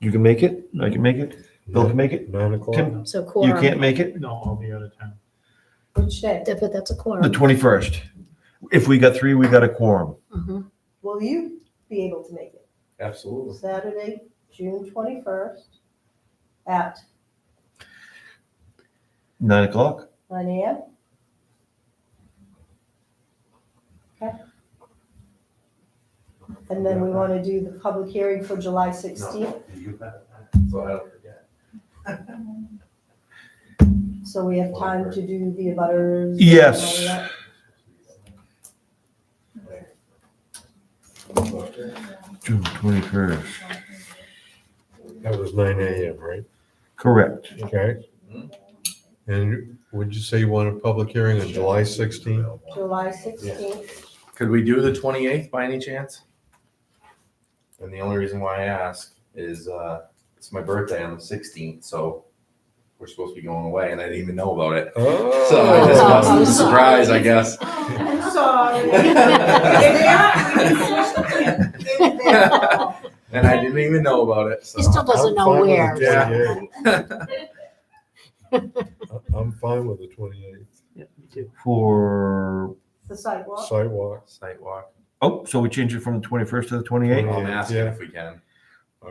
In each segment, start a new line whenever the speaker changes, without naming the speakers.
You can make it, I can make it, Bill can make it,
Nine o'clock?
Tim,
So
you
quorum.
can't make it,
No, I'll be out of town.
Which day? That- But that's a
the
quorum.
twenty-first. If we got three, we got a quorum.
Mhm.
Will you be able to make it
Absolutely.
Saturday, June twenty-first at
Nine o'clock?
nine AM? Okay. And then we want to do the public hearing for July sixteenth,
You bet. So I don't forget.
so we have time to do the abutters. and all
Yes.
of that.
June twenty-first.
That was nine AM, right?
Correct.
Okay. And would you say you want a public hearing on July sixteenth?
July sixteenth,
Could we do the twenty eighth by any chance? And the only reason why I ask is uh it's my birthday on the sixteenth, so we're supposed to be going away and I didn't even know about it.
Oh.
So I just must
Oh,
was a
sorry.
surprise, I guess.
I'm sorry.
And I didn't even know about it, so.
Mm-hmm. He still doesn't know where.
Yeah.
I'm fine with the twenty-eighth
Yeah, me too.
For,
The sidewalk,
sidewalk.
Sidewalk.
oh, so we change it from the twenty-first to the twenty-eighth?
I'm asking
Yeah.
if we can.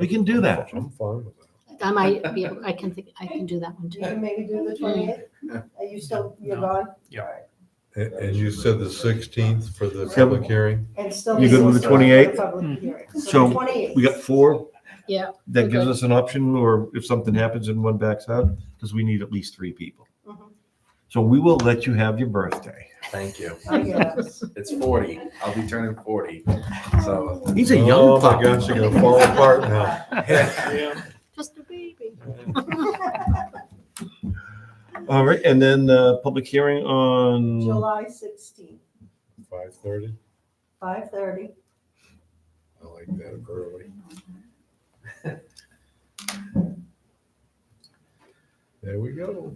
We can do that.
I'm fine with that.
I might be, able- I can, think I can do that one
you
too.
can maybe do the twenty-eighth? Are you still, you're
No.
gone?
And, and you said the sixteenth for the
Yep.
public hearing?
And still.
You good with the 28th? So,
Twenty-eighth.
We got four?
Yeah,
That gives
okay.
us an option, or if something happens and one backs out, because we need at least three people.
Mhm.
So we will let you have your birthday.
Thank you.
I guess.
It's forty. I'll be turning forty, so.
He's a young
Oh my
pup.
gosh, you're gonna fall apart now.
Just a baby.
All right, and then, uh, public hearing on,
July sixteenth,
Five thirty?
five thirty.
I like that early. There we go.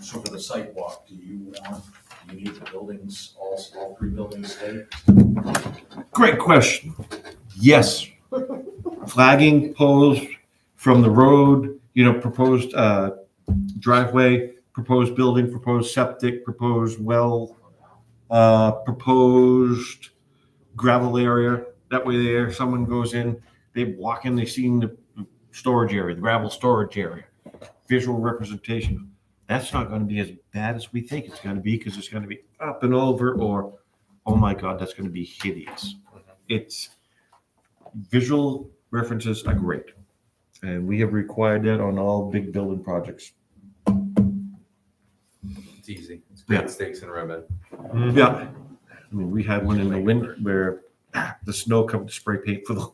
So for the site walk, do you want, do you need the buildings, all, all three buildings stay?
great question. Yes. Flagging poles from the road, you know, proposed, uh, driveway, proposed building, proposed septic, proposed well, uh, proposed gravel area. That way there, someone goes in, they walk in, they see the storage area, the gravel storage area, visual representation. That's not gonna be as bad as we think it's gonna be, because it's gonna be up and over, or, oh my God, that's gonna be hideous. It's, visual references are great. And we have required that on all big building projects.
It's easy. It's
Yeah.
great steaks and ribbon. Mm-hmm.
Yeah. I mean, we had one in the wind where ah, the snow covered the spray paint for the,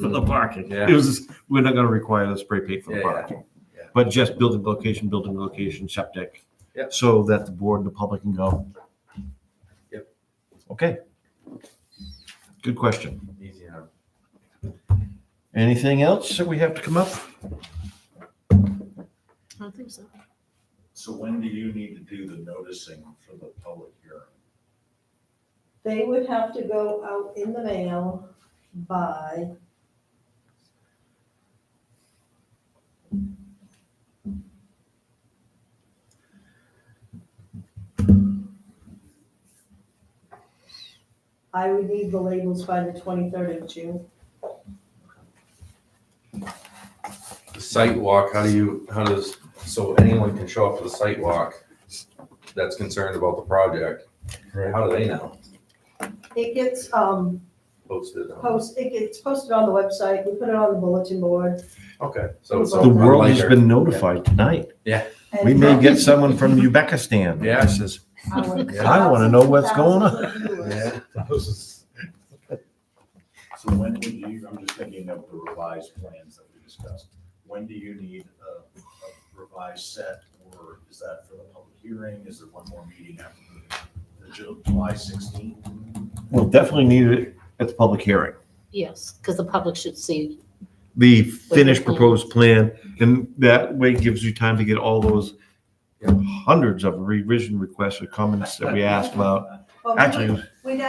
for the parking.
Mm-hmm. Yeah.
It was, we're not gonna require the spray paint for the
Yeah, yeah,
parking.
yeah.
But just building location, building location, septic.
Yep.
So that the board and the public can go.
Yep.
Okay. Good question.
Easy enough.
Anything else that we have to come up?
I don't think so.
So when do you need to do the noticing for the public hearing?
They would have to go out in the mail by. I would need the labels by the twenty-third of June.
The site walk, how do you, how does, so anyone can show up to the site walk that's concerned about the project?
Right.
How do they know?
It gets, um,
Posted. on-
post, it gets posted on the website, we put it on the bulletin board.
Okay, so it's.
The
Oh. The
on
world has
Liger.
been notified tonight.
and-
We may get someone from Uzbekistan.
Yeah.
This is-
I
wanna know what's going on.
Yeah.
So when would you, I'm just thinking of the revised plans that we discussed. When do you need a a revised set, or is that for the public hearing? Is there one more meeting after the Ju- July sixteenth?
We'll definitely need it at the public hearing.
Yes, because the public should see.
The finished proposed plan, and that way gives you time to get all those hundreds of revision requests or comments that we asked about. Actually,
We now